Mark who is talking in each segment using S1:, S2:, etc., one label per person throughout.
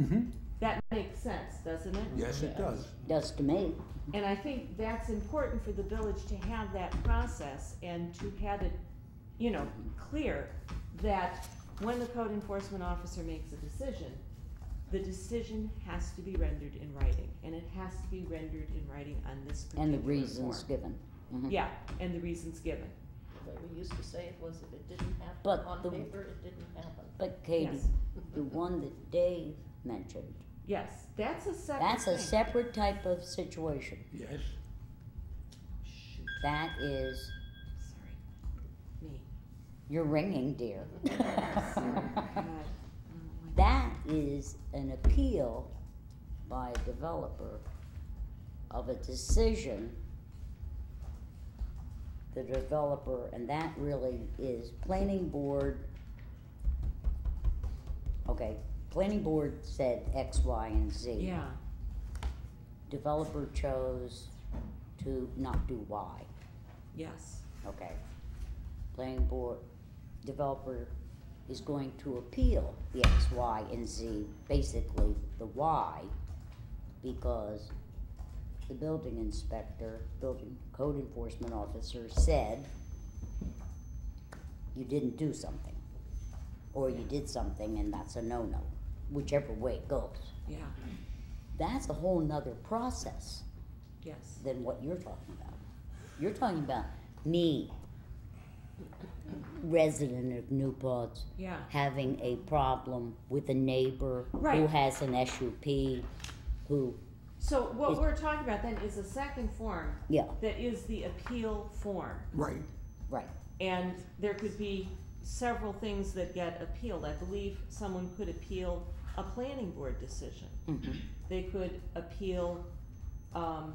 S1: Mm-hmm.
S2: Mhm.
S1: That makes sense, doesn't it?
S2: Yes, it does.
S3: Does to me.
S1: And I think that's important for the village to have that process and to have it, you know, clear that when the code enforcement officer makes a decision, the decision has to be rendered in writing, and it has to be rendered in writing on this particular
S3: And
S1: form.
S3: the reasons given. Mhm.
S1: Yeah, and the reasons given.
S4: What we used to say it was if it didn't happen
S3: But
S4: on
S3: the-
S4: paper, it didn't happen.
S3: But Katie,
S1: Yes.
S3: the one that Dave mentioned,
S1: Yes, that's a separate
S3: that's a
S1: thing.
S3: separate type of situation.
S2: Yes.
S1: Shoot,
S3: That is,
S1: sorry, me.
S3: you're ringing, dear.
S1: Sorry, God. Oh, my
S3: That is an appeal by a developer of a decision the developer, and that really is planning board. Okay, planning board said X, Y, and Z.
S1: Yeah,
S3: Developer chose to not do Y,
S1: yes,
S3: okay? Planning board, developer is going to appeal the X, Y, and Z, basically the Y, because the building inspector, building code enforcement officer said you didn't do something, or you did something and that's a no-no, whichever way it goes.
S1: yeah,
S3: That's a whole nother process
S1: yes.
S3: than what you're talking about. You're talking about me, resident of New Paltz,
S1: Yeah.
S3: having a problem with a neighbor who
S1: Right.
S3: has an SUP, who,
S1: So what
S3: Is-
S1: we're talking about then is a second form
S3: yeah,
S1: that is the appeal form.
S2: Right.
S3: right.
S1: And there could be several things that get appealed. I believe someone could appeal a planning board decision.
S3: Mhm.
S1: They could appeal, um,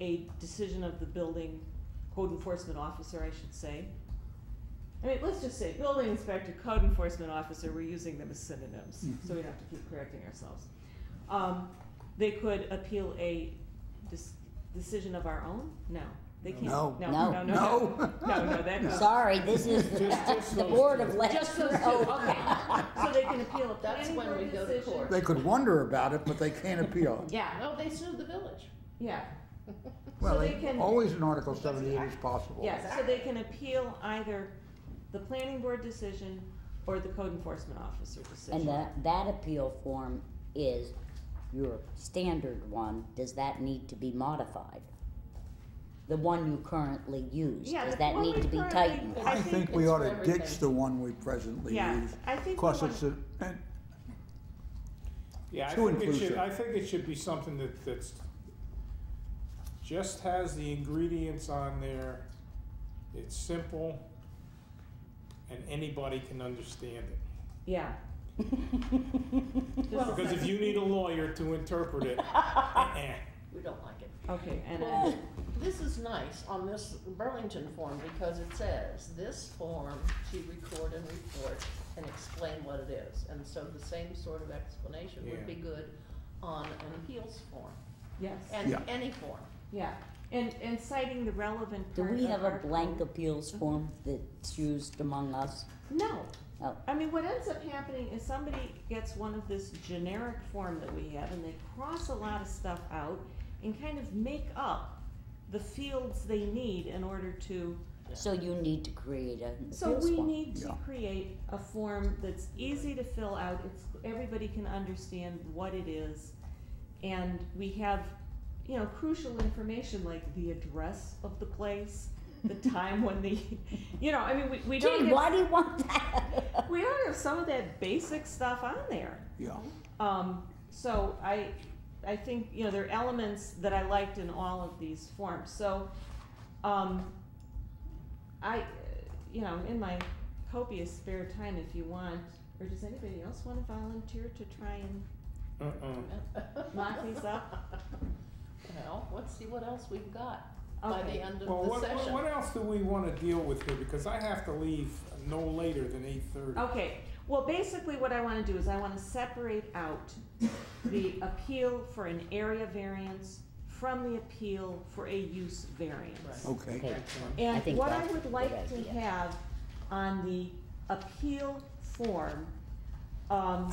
S1: a decision of the building code enforcement officer, I should say. I mean, let's just say building inspector, code enforcement officer, we're using them as synonyms, so we don't have to keep correcting ourselves. Um, they could appeal a dis- decision of our own? No, they can't.
S2: No.
S1: No, no, no.
S2: No.
S1: No, no, that goes.
S3: Sorry, this is
S5: Just- just
S3: the
S5: those
S3: board
S5: two.
S3: of legends.
S1: Just those two, okay. So they can appeal a
S4: That's
S1: planning
S4: when we
S1: board
S4: go to
S1: decision.
S4: court.
S2: They could wonder about it, but they can't appeal.
S1: Yeah,
S4: No, they sued the village.
S1: yeah,
S2: Well,
S1: So they
S2: they-
S1: can-
S2: always in Article seventy-eight is possible.
S1: yes, so they can appeal either the planning board decision or the code enforcement officer
S3: And
S1: decision.
S3: that, that appeal form is your standard one, does that need to be modified? The one you currently use,
S1: Yeah,
S3: does
S1: the
S3: that
S1: one
S3: need
S1: we
S3: to be
S1: currently-
S3: tightened?
S1: I
S2: I
S1: think
S2: think we
S4: it's
S2: ought
S4: for
S2: to ditch
S4: everything.
S2: the one we presently
S1: Yeah,
S2: use. eh,
S1: I think we
S2: Cause
S1: want-
S2: it's a, and
S5: Yeah, I
S2: Too
S5: think it should,
S2: inclusive.
S5: I think it should be something that, that's, just has the ingredients on there, it's simple, and anybody can understand it.
S1: Yeah. Just-
S5: Because if you need a lawyer to interpret it, eh,
S4: We don't like it.
S3: Oh.
S1: Okay, and, uh,
S4: Well, this is nice on this Burlington form because it says, this form to record and report and explain what it is. And so the same sort of explanation
S5: Yeah.
S4: would be good on an appeals form
S1: yes,
S4: and
S2: Yeah.
S4: any form.
S1: yeah, and, and citing the relevant
S3: Do
S1: part
S3: we
S1: of
S3: have a
S1: our
S3: blank
S1: code.
S3: appeals form that's used among us?
S1: No.
S3: Oh.
S1: I mean, what ends up happening is somebody gets one of this generic form that we have and they cross a lot of stuff out and kind of make up the fields they need in order to.
S3: So you need to create a appeals
S1: So we
S3: form.
S1: need to
S2: Yeah.
S1: create a form that's easy to fill out, it's, everybody can understand what it is. And we have, you know, crucial information like the address of the place, the time when the, you know, I mean, we, we don't
S3: Gee,
S1: get
S3: why do you want that?
S1: we don't have some of that basic stuff on there.
S2: yeah,
S1: Um, so I, I think, you know, there are elements that I liked in all of these forms. So, um, I, uh, you know, in my copious spare time, if you want, or does anybody else want to volunteer to try and
S5: uh-uh.
S1: lock these up?
S4: Well, let's see what else we've got by the
S1: Okay.
S4: end of
S5: Well,
S4: the
S5: what, what-
S4: session.
S5: what else do we wanna deal with here, because I have to leave no later than eight thirty.
S4: Oh.
S1: Okay, well, basically what I wanna do is I wanna separate out the appeal for an area variance from the appeal for a use variance.
S4: Right.
S2: okay.
S3: Okay, I
S1: And
S3: think
S1: what I
S3: that's a
S1: would
S3: good
S1: like to
S3: idea.
S1: have on the appeal form, um,